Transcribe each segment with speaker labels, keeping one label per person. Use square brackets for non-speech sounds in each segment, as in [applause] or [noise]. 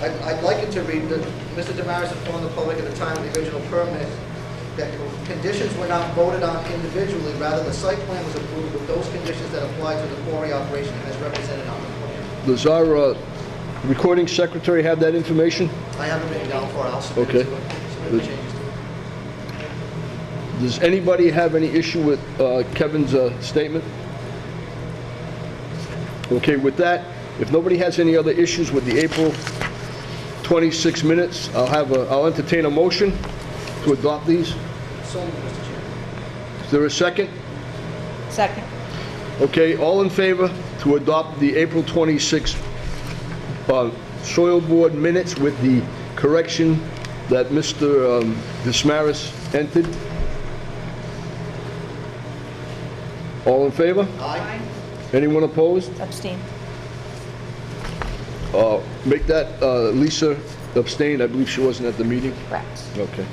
Speaker 1: I'd, I'd like it to read that Mr. Damaris informed the public at the time of the original permit that conditions were not voted on individually, rather the site plan was approved with those conditions that apply to the quarry operation as represented on the plan.
Speaker 2: Does our uh, recording secretary have that information?
Speaker 1: I haven't been down for it, I'll submit it to
Speaker 2: Okay.
Speaker 1: him, submit the changes to him.
Speaker 2: Does anybody have any issue with uh, Kevin's uh, statement? Okay, with that, if nobody has any other issues with the April 26 minutes, I'll have a, I'll entertain a motion to adopt these.
Speaker 1: So moved, Mr. Chairman.
Speaker 2: Is there a second?
Speaker 3: Second.
Speaker 2: Okay, all in favor to adopt the April 26 uh, Soil Board minutes with the correction that Mr. um, Dismaris entered? All in favor?
Speaker 1: Aye.
Speaker 2: Anyone opposed?
Speaker 3: Abstain.
Speaker 2: Uh, Make that uh, Lisa abstain, I believe she wasn't at the meeting.
Speaker 3: Correct.
Speaker 2: Okay.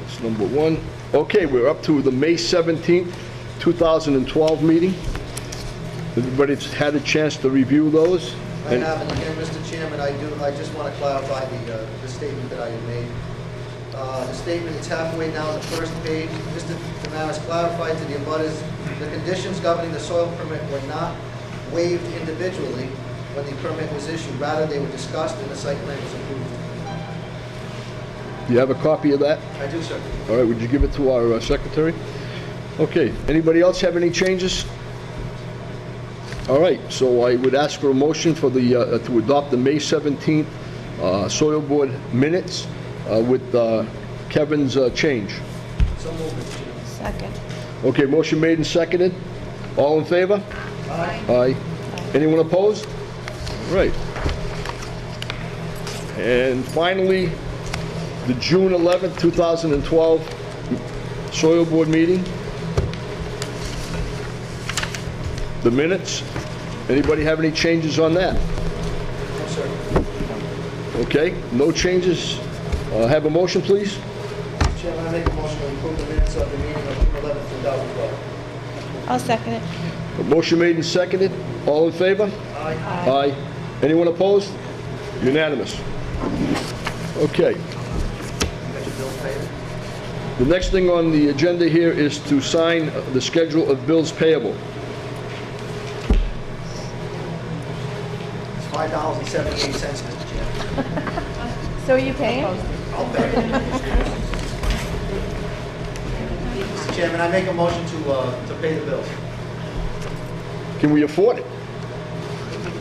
Speaker 2: That's number one. Okay, we're up to the May 17th, 2012 meeting. Everybody's had a chance to review those?
Speaker 1: I have, and again, Mr. Chairman, I do, I just want to clarify the, uh, the statement that I had made. Uh, The statement is halfway down the first page. Mr. Damaris clarified to the abutters, the conditions governing the soil permit were not waived individually when the permit was issued. Rather, they were discussed and the site plan was approved.
Speaker 2: Do you have a copy of that?
Speaker 1: I do, sir.
Speaker 2: All right, would you give it to our uh, secretary? Okay, anybody else have any changes? All right, so I would ask for a motion for the, uh, to adopt the May 17th uh, Soil Board minutes uh, with uh, Kevin's uh, change.
Speaker 1: So moved, Mr. Chairman.
Speaker 3: Second.
Speaker 2: Okay, motion made and seconded. All in favor? Aye. Anyone opposed? Right. And finally, the June 11th, 2012 Soil Board meeting. The minutes. Anybody have any changes on that?
Speaker 1: No, sir.
Speaker 2: Okay, no changes. Uh, Have a motion, please?
Speaker 1: Mr. Chairman, I make a motion to approve the minutes of the meeting of June 11, 2012.
Speaker 3: I'll second it.
Speaker 2: A Motion made and seconded. All in favor?
Speaker 1: Aye.
Speaker 2: Aye. Anyone opposed? Unanimous. Okay.
Speaker 1: You got your bill paid?
Speaker 2: The next thing on the agenda here is to sign the schedule of bills payable.
Speaker 1: It's $5.78, Mr. Chairman.
Speaker 3: So are you paying?
Speaker 1: I'll pay it. Mr. Chairman, I make a motion to, uh, to pay the bills.
Speaker 2: Can we afford it?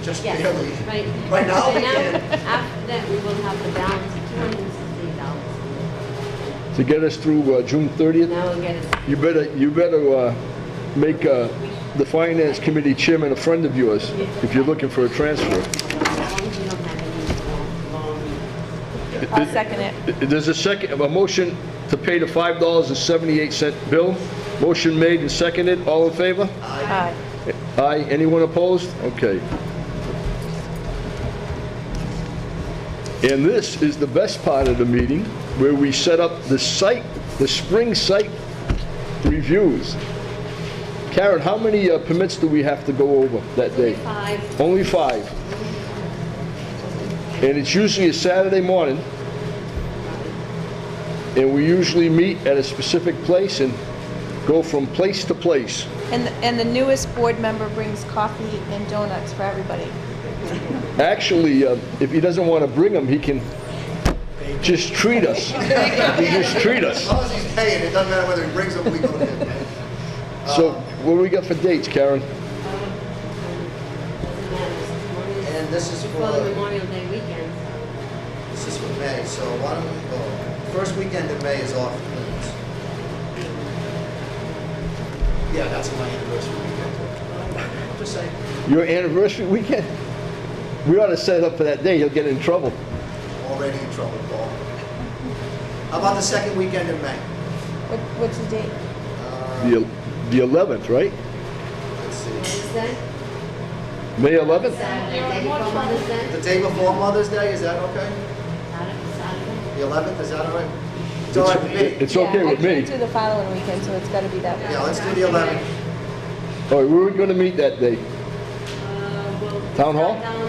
Speaker 1: Just
Speaker 4: Yes,
Speaker 1: barely.
Speaker 4: right.
Speaker 1: Right now,
Speaker 4: So
Speaker 1: we can.
Speaker 4: After that, we will have the balance of two hundred and sixty dollars.
Speaker 2: To get us through uh, June 30th?
Speaker 4: Now we'll get it.
Speaker 2: You better, you better uh, make uh, the Finance Committee Chairman a friend of yours if you're looking for a transfer.
Speaker 4: As long as you don't have any long, long.
Speaker 3: I'll second it.
Speaker 2: There's a second, a motion to pay the $5.78 bill. Motion made and seconded. All in favor?
Speaker 3: Aye.
Speaker 2: Aye. Anyone opposed? Okay. And this is the best part of the meeting, where we set up the site, the spring site reviews. Karen, how many uh, permits do we have to go over that day?
Speaker 4: Five,
Speaker 2: Only five. And it's usually a Saturday morning. And we usually meet at a specific place and go from place to place.
Speaker 3: And, and the newest board member brings coffee and donuts for everybody.
Speaker 2: Actually, uh, if he doesn't want to bring them, he can just treat us. He just treat
Speaker 1: As
Speaker 2: us.
Speaker 1: long as he's paying, it doesn't matter whether he brings them, we go to him.
Speaker 2: So what do we got for dates, Karen?
Speaker 4: doesn't matter, it's Memorial-
Speaker 1: And this is
Speaker 4: before the
Speaker 1: for,
Speaker 4: Memorial Day weekend, so
Speaker 1: this is for May, so why don't we go? First weekend in May is off limits. Yeah, that's my anniversary weekend. [laughs] I'm Just saying.
Speaker 2: Your anniversary weekend? We ought to set it up for that day. He'll get in trouble.
Speaker 1: Already in trouble, Paul. How about the second weekend in May?
Speaker 3: What, what's the date?
Speaker 1: Uh,
Speaker 2: The el- the 11th, right?
Speaker 1: Let's see.
Speaker 4: Wednesday,
Speaker 2: May 11th?
Speaker 4: Saturday, day before Mother's Day,
Speaker 1: The day before Mother's Day, is that okay?
Speaker 4: Saturday, Saturday.
Speaker 1: The 11th, is that all right? It's all right with
Speaker 2: It's
Speaker 1: me.
Speaker 2: it's okay
Speaker 3: Yeah,
Speaker 2: with
Speaker 3: I
Speaker 2: me.
Speaker 3: can't do the following weekend, so it's gotta be that
Speaker 1: Yeah,
Speaker 3: week.
Speaker 1: let's do the 11th.
Speaker 2: All right, where are we going to meet that day?
Speaker 4: Uh, well,
Speaker 2: Town hall?
Speaker 4: Town